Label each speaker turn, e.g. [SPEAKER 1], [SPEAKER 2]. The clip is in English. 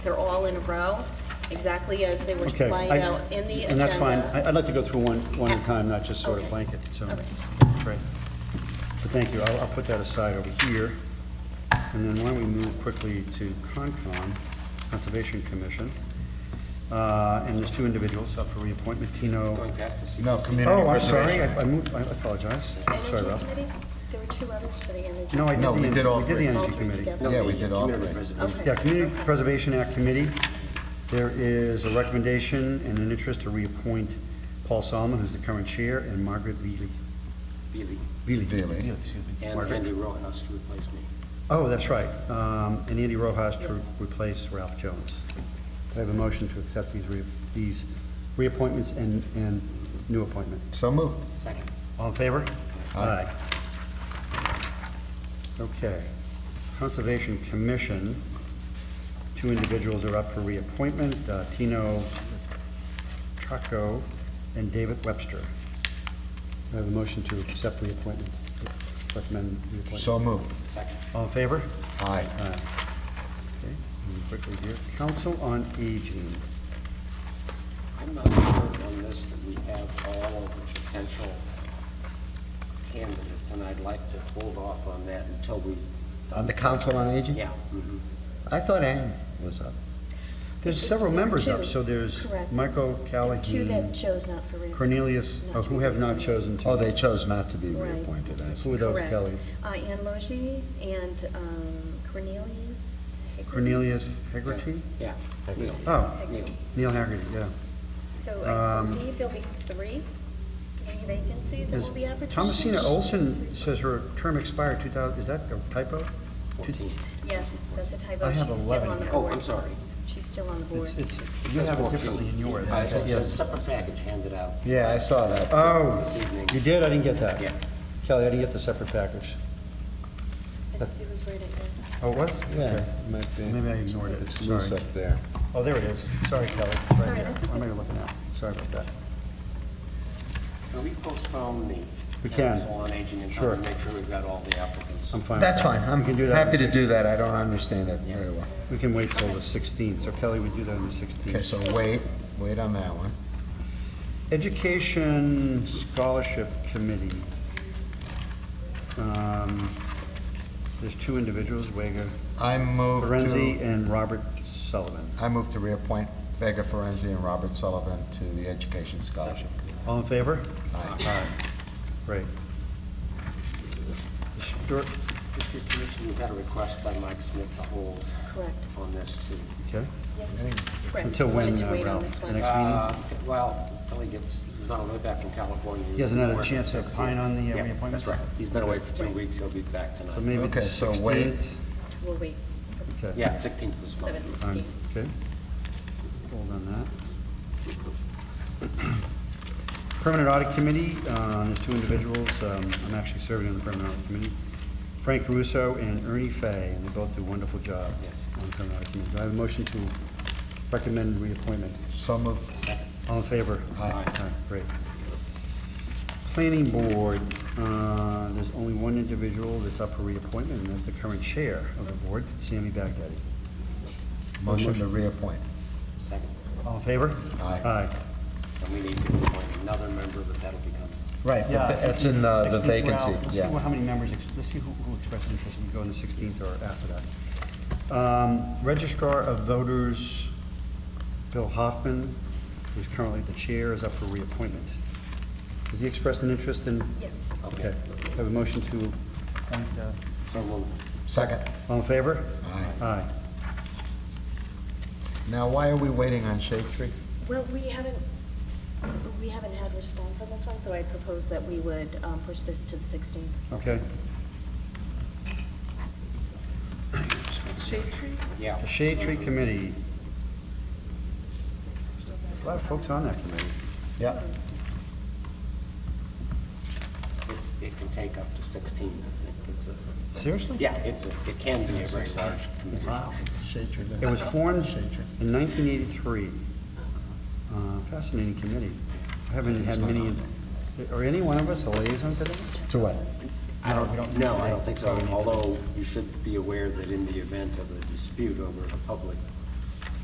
[SPEAKER 1] They're all in a row, exactly as they were
[SPEAKER 2] Okay.
[SPEAKER 1] laid
[SPEAKER 2] I-
[SPEAKER 1] out in the agenda.
[SPEAKER 2] And that's fine. I- I'd like to go through one, one at a time, not just sort of
[SPEAKER 1] Okay.
[SPEAKER 2] blanket, so.
[SPEAKER 1] Okay.
[SPEAKER 2] Great. So thank you. I'll, I'll put that aside over here. And then why don't we move quickly to Concom, Conservation Commission. Uh, And there's two individuals up for reappointment, Tino.
[SPEAKER 3] Going past the
[SPEAKER 4] No,
[SPEAKER 3] CPC.
[SPEAKER 4] community
[SPEAKER 2] Oh, I'm
[SPEAKER 4] preservation.
[SPEAKER 2] sorry. I I moved, I apologize. Sorry,
[SPEAKER 1] Energy
[SPEAKER 2] Ralph.
[SPEAKER 1] Committee? There were two others for the Energy.
[SPEAKER 2] No, I did
[SPEAKER 4] No,
[SPEAKER 2] the,
[SPEAKER 4] we
[SPEAKER 2] en-
[SPEAKER 4] did all
[SPEAKER 2] we did the
[SPEAKER 4] three.
[SPEAKER 1] All
[SPEAKER 2] Energy
[SPEAKER 1] three
[SPEAKER 2] Committee.
[SPEAKER 1] together.
[SPEAKER 3] No,
[SPEAKER 4] Yeah,
[SPEAKER 3] the
[SPEAKER 4] we did all
[SPEAKER 3] community
[SPEAKER 4] three.
[SPEAKER 3] preservation.
[SPEAKER 1] Okay.
[SPEAKER 2] Yeah, Community Preservation Act Committee, there is a recommendation and an interest to reappoint Paul Solomon, who's the current chair, and Margaret Veely.
[SPEAKER 3] Beely.
[SPEAKER 2] Veely.
[SPEAKER 4] Really?
[SPEAKER 3] And
[SPEAKER 2] Margaret.
[SPEAKER 3] Andy Rojas to replace me.
[SPEAKER 2] Oh, that's right. Um, And Andy Rojas to replace Ralph Jones. Do I have a motion to accept these, re- these reappointments and, and new appointment?
[SPEAKER 4] So moved.
[SPEAKER 3] Second.
[SPEAKER 2] All in favor?
[SPEAKER 4] Aye.
[SPEAKER 2] Okay. Conservation Commission, two individuals are up for reappointment, uh, Tino Chaco and David Webster. Do I have a motion to accept reappointment, recommend reappointment?
[SPEAKER 4] So moved.
[SPEAKER 3] Second.
[SPEAKER 2] All in favor?
[SPEAKER 4] Aye.
[SPEAKER 2] Aye. Okay, and quickly here, Council on Aging.
[SPEAKER 3] I'm not sure on this that we have all of the potential candidates, and I'd like to hold off on that until we,
[SPEAKER 2] On the Council on Aging?
[SPEAKER 3] yeah. mhm.
[SPEAKER 2] I thought Ann was up. There's several members
[SPEAKER 1] Two.
[SPEAKER 2] up, so there's
[SPEAKER 1] Correct.
[SPEAKER 2] Michael Callahan.
[SPEAKER 1] Two that chose not for reappointment.
[SPEAKER 2] Cornelius,
[SPEAKER 1] Not
[SPEAKER 2] oh,
[SPEAKER 1] to
[SPEAKER 2] who
[SPEAKER 1] be
[SPEAKER 2] have not chosen to.
[SPEAKER 4] Oh, they chose not to be
[SPEAKER 1] Right.
[SPEAKER 4] reappointed, I see.
[SPEAKER 2] Who are those,
[SPEAKER 1] Correct.
[SPEAKER 2] Kelly?
[SPEAKER 1] Uh, Ann Logie and um, Cornelius. Hickman.
[SPEAKER 2] Cornelius Hegarty?
[SPEAKER 3] Yeah, Neil,
[SPEAKER 2] Oh,
[SPEAKER 3] Neil.
[SPEAKER 2] Neil Hegarty, yeah.
[SPEAKER 1] So I
[SPEAKER 2] Um,
[SPEAKER 1] believe there'll be three, three vacancies that
[SPEAKER 2] Is
[SPEAKER 1] will be advertised.
[SPEAKER 2] Thomasina Olson says her term expired 2000, is that a typo?
[SPEAKER 3] Fourteen.
[SPEAKER 1] Yes, that's a typo.
[SPEAKER 2] I have
[SPEAKER 1] She's still
[SPEAKER 2] 11.
[SPEAKER 1] on the
[SPEAKER 3] Oh, I'm
[SPEAKER 1] board.
[SPEAKER 3] sorry.
[SPEAKER 1] She's still on the board.
[SPEAKER 2] It's, it's,
[SPEAKER 3] It
[SPEAKER 2] you
[SPEAKER 3] says
[SPEAKER 2] have it
[SPEAKER 3] 14.
[SPEAKER 2] differently in yours.
[SPEAKER 3] Uh, It's it's
[SPEAKER 2] Yeah.
[SPEAKER 3] a separate package handed out
[SPEAKER 4] Yeah, I saw that.
[SPEAKER 2] Oh,
[SPEAKER 3] this evening.
[SPEAKER 2] you did? I didn't get that.
[SPEAKER 3] Yeah.
[SPEAKER 2] Kelly, I didn't get the separate package.
[SPEAKER 1] It's- It was right at the,
[SPEAKER 2] Oh, it was?
[SPEAKER 4] Yeah,
[SPEAKER 2] Okay.
[SPEAKER 4] might be.
[SPEAKER 2] Maybe I ignored it,
[SPEAKER 4] It's
[SPEAKER 2] sorry.
[SPEAKER 4] loose up there.
[SPEAKER 2] Oh, there it is. Sorry, Kelly. It's right
[SPEAKER 1] Sorry,
[SPEAKER 2] here.
[SPEAKER 1] that's
[SPEAKER 2] What am I
[SPEAKER 1] okay.
[SPEAKER 2] looking at? Sorry about that.
[SPEAKER 3] Can we postpone the
[SPEAKER 2] We can.
[SPEAKER 3] council on aging and
[SPEAKER 2] Sure. Um.
[SPEAKER 3] try to make sure we've got all the applicants?
[SPEAKER 2] I'm fine. with
[SPEAKER 4] That's
[SPEAKER 2] that.
[SPEAKER 4] fine, I'm
[SPEAKER 2] We can do that. on
[SPEAKER 4] happy
[SPEAKER 2] the
[SPEAKER 4] to do that, I don't understand it very well.
[SPEAKER 2] We can wait till the 16th, so Kelly, we do that on the
[SPEAKER 4] Okay,
[SPEAKER 2] 16th.
[SPEAKER 4] so wait, wait on that one.
[SPEAKER 2] Education Scholarship Committee. Um, There's two individuals, Wega
[SPEAKER 4] I move
[SPEAKER 2] Ferenzi
[SPEAKER 4] to,
[SPEAKER 2] and Robert Sullivan.
[SPEAKER 4] I move to reappoint Vega Ferenzi and Robert Sullivan to the Education Scholarship.
[SPEAKER 2] All in favor?
[SPEAKER 4] Aye.
[SPEAKER 2] Great. Histor-
[SPEAKER 3] Mr. Commissioner, we've had a request by Mike Smith to hold
[SPEAKER 1] correct,
[SPEAKER 3] on this too.
[SPEAKER 2] Okay,
[SPEAKER 1] correct.
[SPEAKER 2] Until when,
[SPEAKER 1] Wanted to
[SPEAKER 2] uh,
[SPEAKER 1] wait on
[SPEAKER 2] Ralph?
[SPEAKER 1] this
[SPEAKER 2] The
[SPEAKER 1] one.
[SPEAKER 2] next-
[SPEAKER 3] Uh, Well, until he gets, he was on the way back from California.
[SPEAKER 2] He hasn't had a
[SPEAKER 3] Working
[SPEAKER 2] chance to
[SPEAKER 3] six
[SPEAKER 2] opine
[SPEAKER 3] years.
[SPEAKER 2] on the, uh,
[SPEAKER 3] Yeah,
[SPEAKER 2] reappointments?
[SPEAKER 3] That's right. He's been away for two weeks. He'll be back
[SPEAKER 2] so
[SPEAKER 3] tonight.
[SPEAKER 2] maybe the
[SPEAKER 4] Okay, so wait.
[SPEAKER 2] 16th?
[SPEAKER 1] We'll wait.
[SPEAKER 2] Okay.
[SPEAKER 3] Yeah, 16th was fine.
[SPEAKER 1] Seven
[SPEAKER 2] Um,
[SPEAKER 1] sixteen.
[SPEAKER 2] Okay. Hold on that. Permanent Audit Committee, uh, there's two individuals, um, I'm actually serving on the Permanent Audit Committee, Frank Russo and Ernie Fay, and they both do a wonderful job
[SPEAKER 3] Yes.
[SPEAKER 2] on the Permanent Audit Committee. Do I have a motion to recommend reappointment?
[SPEAKER 4] So moved.
[SPEAKER 2] All in favor?
[SPEAKER 4] Aye.
[SPEAKER 2] Great. Planning Board, uh, there's only one individual that's up for reappointment, and that's the current chair of the board, Sammy Baghdadi.
[SPEAKER 4] Oh, Motion to reappoint.
[SPEAKER 3] Second.
[SPEAKER 2] All in favor?
[SPEAKER 4] Aye.
[SPEAKER 2] Aye.
[SPEAKER 3] And we need to appoint another member, but that'll be coming.
[SPEAKER 4] Right,
[SPEAKER 2] Yeah, I think
[SPEAKER 4] that's in the the
[SPEAKER 2] 16th, well,
[SPEAKER 4] vacancy,
[SPEAKER 2] Let's see
[SPEAKER 4] yeah.
[SPEAKER 2] what- how many members, ex- let's see who who expressed interest, and we go on the 16th or after that. Um, Registrar of Voters, Bill Hoffman, who's currently the chair, is up for reappointment. Has he expressed an interest in?
[SPEAKER 1] Yes.
[SPEAKER 2] Okay, have a motion to appoint, uh,
[SPEAKER 3] So we'll,
[SPEAKER 4] Second.
[SPEAKER 2] all in favor?
[SPEAKER 4] Aye.
[SPEAKER 2] Aye.
[SPEAKER 4] Now, why are we waiting on Shade Tree?
[SPEAKER 1] Well, we haven't, we haven't had response on this one, so I propose that we would um, push this to the 16th.
[SPEAKER 2] Okay,
[SPEAKER 1] Shade tree?
[SPEAKER 3] yeah.
[SPEAKER 2] the Shade Tree Committee. A lot of folks on that committee.
[SPEAKER 4] Yep.
[SPEAKER 3] It's, it can take up to 16, I think. It's a,
[SPEAKER 2] Seriously?
[SPEAKER 3] yeah, it's a, it can be a very large committee.
[SPEAKER 4] Shade Tree.
[SPEAKER 2] It was formed
[SPEAKER 4] Shade Tree.
[SPEAKER 2] in 1983. Uh, Fascinating committee. I haven't had many, are any one of us a liaison to that?
[SPEAKER 4] To what?
[SPEAKER 3] I
[SPEAKER 2] No, we don't-
[SPEAKER 3] don't, no, I don't think so, although you should be aware that in the event of a dispute over a public